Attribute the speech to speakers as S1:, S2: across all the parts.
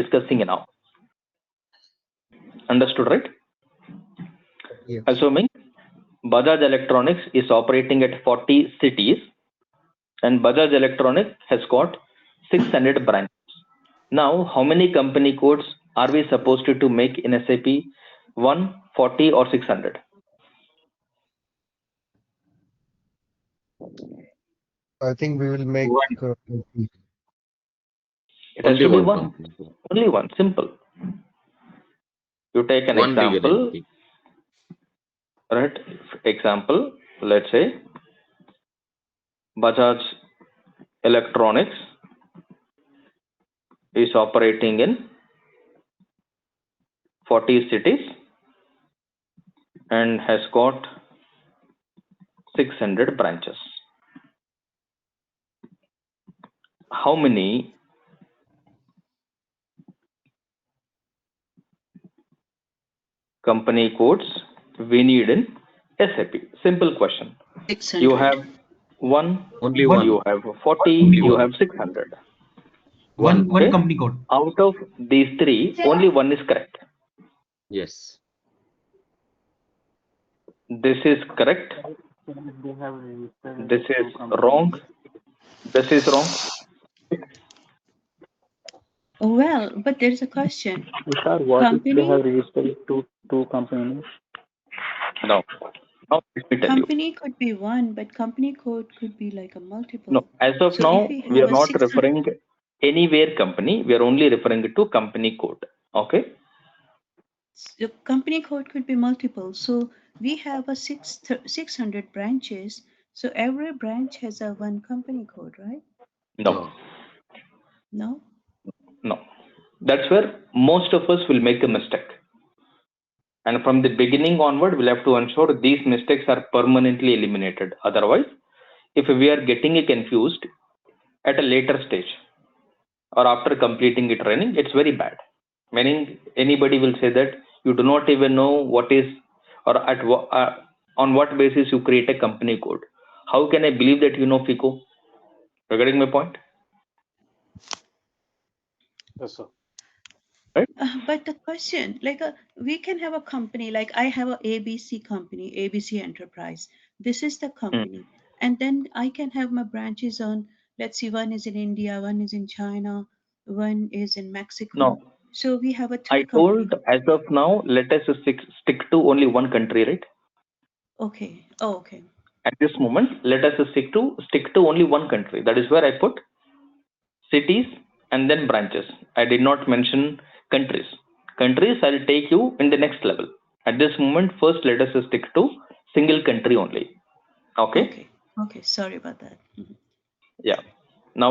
S1: discussing now. Understood, right?
S2: Yeah.
S1: Assuming Bajaj Electronics is operating at 40 cities and Bajaj Electronics has got 600 branches. Now, how many company codes are we supposed to, to make in SAP? 1, 40 or 600?
S2: I think we will make. uh,
S1: It has to be
S3: Only one
S1: one,
S3: company.
S1: only one, simple. You take an
S3: One legal
S1: example,
S3: entity.
S1: right? Example, let's say Bajaj Electronics is operating in 40 cities and has got 600 branches. How many company codes we need in SAP? Simple question.
S4: Six
S1: You
S4: hundred.
S1: have one,
S3: Only one.
S1: you have 40,
S3: Only
S1: you
S3: one.
S1: have 600.
S5: One,
S1: Okay.
S5: one company code.
S1: Out of these three, only one is correct.
S3: Yes.
S1: This is correct. This is wrong. This is wrong.
S4: Oh, Well, but there's a question.
S6: Tushar, what if they
S4: Company-
S6: have registered two, two companies?
S1: No. Now, let me tell you.
S4: Company could be one, but company code could be like a multiple.
S1: No, as of
S4: So
S1: now,
S4: if we
S1: we
S4: have
S1: are
S4: a
S1: not
S4: 600
S1: referring anywhere company. We are only referring to company code. Okay.
S4: The company code could be multiple. So we have a six, six hundred branches. So every branch has a one company code, right?
S1: No,
S4: No?
S1: no. That's where most of us will make a mistake. And from the beginning onward, we'll have to ensure these mistakes are permanently eliminated. Otherwise, if we are getting it confused at a later stage or after completing the training, it's very bad. Meaning, anybody will say that you do not even know what is or at wha- uh, on what basis you create a company code. How can I believe that you know FICO? Regarding my point?
S6: Yes, sir.
S4: Uh, but the question, like, a, we can have a company, like I have a ABC company, ABC Enterprise. This is
S1: Hmm.
S4: the company, and then I can have my branches on. Let's see, one is in India, one is in China, one is in Mexico.
S1: No,
S4: So we have a three
S1: I told as of now, let us stick, stick to only one country, right?
S4: Okay. Oh, okay.
S1: At this moment, let us stick to stick to only one country. That is where I put cities and then branches. I did not mention countries. Countries I'll take you in the next level. At this moment, first let us stick to single country only. Okay.
S4: Okay. Okay. Sorry about that. Mhm.
S1: Now,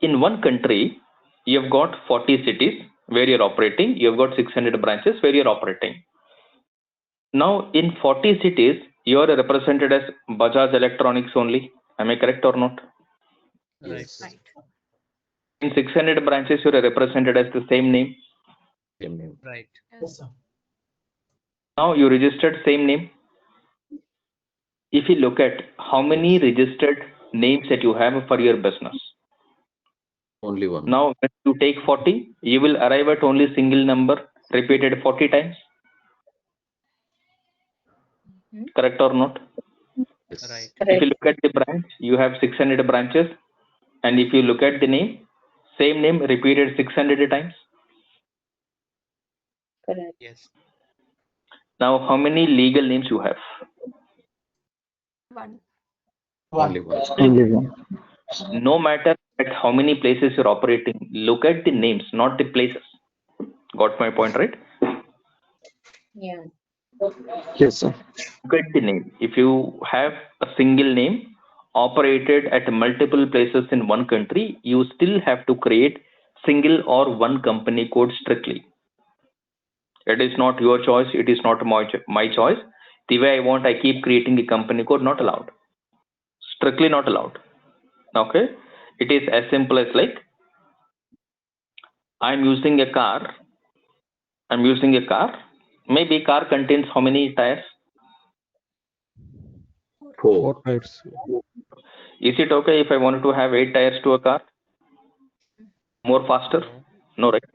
S1: in one country, you have got 40 cities where you're operating, you have got 600 branches where you're operating. Now, in 40 cities, you are represented as Bajaj Electronics only. Am I correct or not?
S3: Yes.
S4: Right.
S1: In 600 branches, you are represented as the same name.
S3: Same name.
S5: Right.
S1: Now, you registered same name. If you look at how many registered names that you have for your business,
S3: Only one.
S1: now when you take 40, you will arrive at only single number repeated 40 times. Correct or not?
S3: Yes.
S5: Right.
S1: If you look at the branch, you have 600 branches. And if you look at the name, same name repeated 600 times.
S5: Yes.
S1: Now, how many legal names you have?
S7: One.
S3: Only one.
S1: No matter at how many places you're operating, look at the names, not the places. Got my point, right?
S2: Yes, sir.
S1: Look at the name. If you have a single name operated at multiple places in one country, you still have to create single or one company code strictly. It is not your choice. It is not my, cho- my choice. The way I want, I keep creating a company code, not allowed. Strictly not allowed. Okay. It is as simple as like I'm using a car. I'm using a car. Maybe car contains how many tires?
S3: Four.
S1: is it okay if i wanted to have eight tires to a car more faster no right